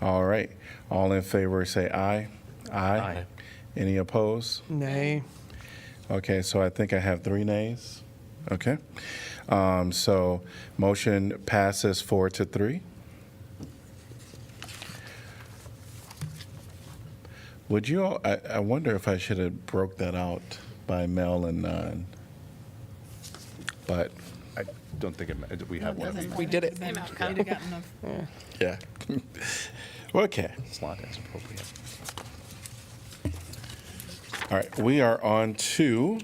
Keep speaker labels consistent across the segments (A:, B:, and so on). A: All right. All in favor, say aye. Aye.
B: Aye.
A: Any opposed?
C: Nay.
A: Okay, so I think I have three nays. Okay. Um, So motion passes four to three. Would you, all I I wonder if I should have broke that out by mail and non. But,
D: I don't think it, ma- we have one of these
C: We did it.
E: Came out, kind of gotten a
A: yeah. Okay.
D: slot as appropriate.
A: All right, we are on to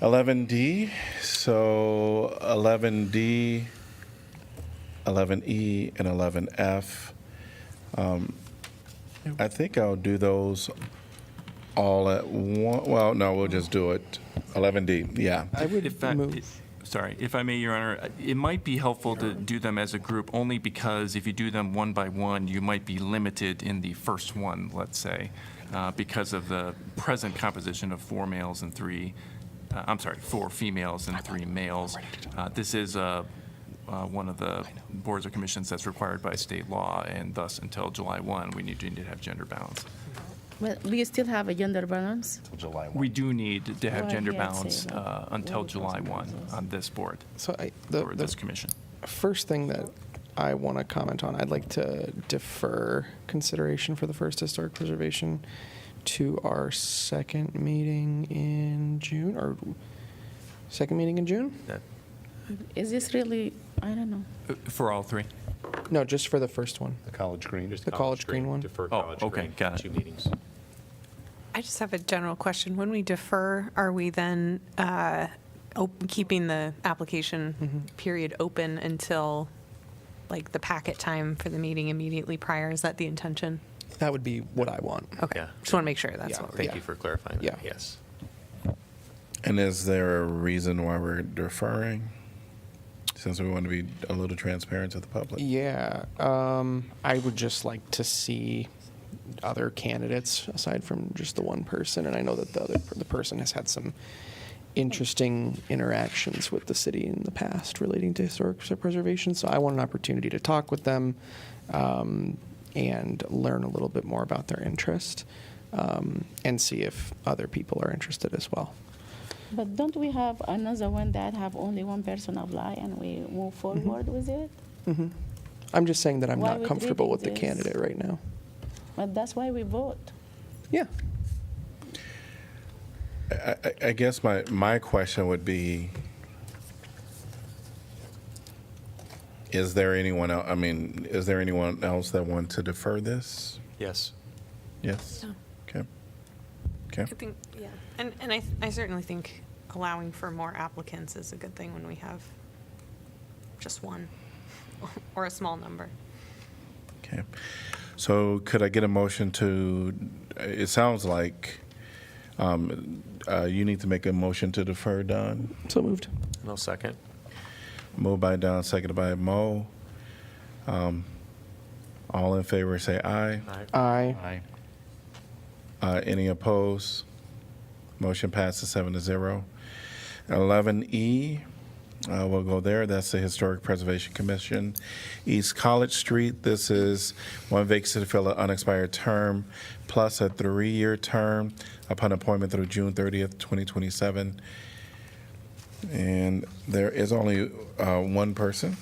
A: 11D. So 11D, 11E, E, and 11F. Um, I think I'll do those all at one. Well, no, we'll just do it. 11D, yeah.
C: I
B: If
C: would
B: I-
C: move.
B: Sorry, if I may, Your Honor, it might be helpful to do them as a group, only because if you do them one by one, you might be limited in the first one, let's say, uh, because of the present composition of four males and three, uh, I'm sorry, four females and three males. Uh, This is uh, uh, one of the boards or commissions that's required by state law, and thus, until July 1, we need to need to have gender balance.
F: Well, we still have a gender balance.
D: Till July 1.
B: We do need to have
F: Well,
B: gender
F: yeah, I'd say
B: balance
F: that.
B: uh, until July 1 on this board,
C: So I, the,
B: or this
C: the
B: commission.
C: first thing that I want to comment on, I'd like to defer consideration for the first historic preservation to our second meeting in June or second meeting in June?
B: That-
F: Is this really, I don't know.
B: Uh, For all three?
C: No, just for the first one.
D: The college green.
C: The college green one.
G: Defer
B: Oh,
G: college
B: okay,
G: green,
B: got it.
G: two meetings.
H: I just have a general question. When we defer, are we then uh, op- keeping the application
C: Mm-hmm.
H: period open until, like, the packet time for the meeting immediately prior? Is that the intention?
C: That would be what I want.
H: Okay,
G: Yeah.
H: just want to make sure that's
C: Yeah.
H: what we're
G: Thank you for clarifying that,
C: Yeah.
G: yes.
A: And is there a reason why we're deferring? Since we want to be a little transparent to the public?
C: Yeah, um, I would just like to see other candidates aside from just the one person, and I know that the other the person has had some interesting interactions with the city in the past relating to historic preservation. So I want an opportunity to talk with them um, and learn a little bit more about their interest um, and see if other people are interested as well.
F: But don't we have another one that have only one person apply and we move forward with it?
C: I'm just saying that I'm
F: Why
C: not
F: would we
C: comfortable
F: do
C: with the
F: this?
C: candidate right now.
F: But that's why we vote.
C: Yeah.
A: I, I- I guess my, my question would be, is there anyone, el- I mean, is there anyone else that want to defer this?
G: Yes.
A: Yes?
H: No.
A: Okay. Okay.
H: I think, yeah, and, and I, I certainly think allowing for more applicants is a good thing when we have just one or a small number.
A: Okay. So could I get a motion to, it sounds like um, uh, you need to make a motion to defer, Don.
C: So moved.
G: No second?
A: Moved by Don, seconded by Mo. Um, All in favor, say aye.
C: Aye.
D: Aye.
A: Uh, Any opposed? Motion passes seven to zero. 11E, uh, we'll go there. That's the Historic Preservation Commission. East College Street, this is one vacancy to fill an unexpired term plus a three-year term upon appointment through June 30th, 2027. And there is only uh, one person,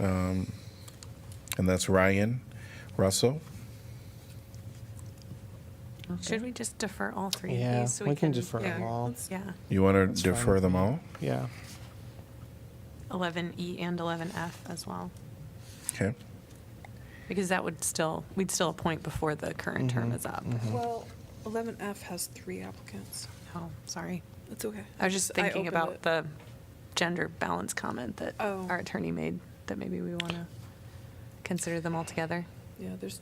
A: um, and that's Ryan Russell.
H: Should we just defer all three of
C: Yeah,
H: these? so
C: we can defer them all.
H: Yeah,
A: You want
C: That's
A: to
C: fine
A: defer
C: with
A: them
C: me.
A: all?
C: Yeah.
H: 11E E and 11F as well,
A: Okay.
H: because that would still, we'd still appoint before the current term is up.
D: Mm-hmm.
E: Well, 11F has three applicants.
H: Oh, sorry.
E: It's okay.
H: I was just thinking
E: opened
H: about
E: it.
H: the gender balance comment that
E: Oh.
H: our attorney made, that maybe we want to consider them all together.
E: Yeah, there's,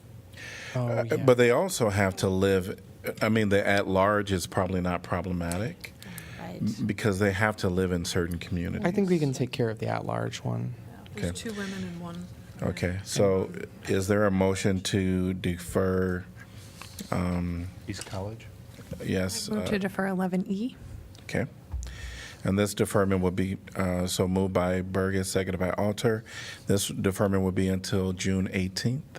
C: Oh, yeah.
A: Uh, But they also have to live, I mean, the at large is probably not problematic
H: Right.
A: because they have to live in certain communities.
C: I think we can take care of the at-large one.
A: Okay.
E: there's two women and one. man.
A: Okay, so is there a motion to defer,
D: East College?
A: yes? uh,
H: Move to defer E. 11E.
A: Okay. And this deferment will be, uh, so moved by Burgess, seconded by Alter. This deferment will be until June 18th.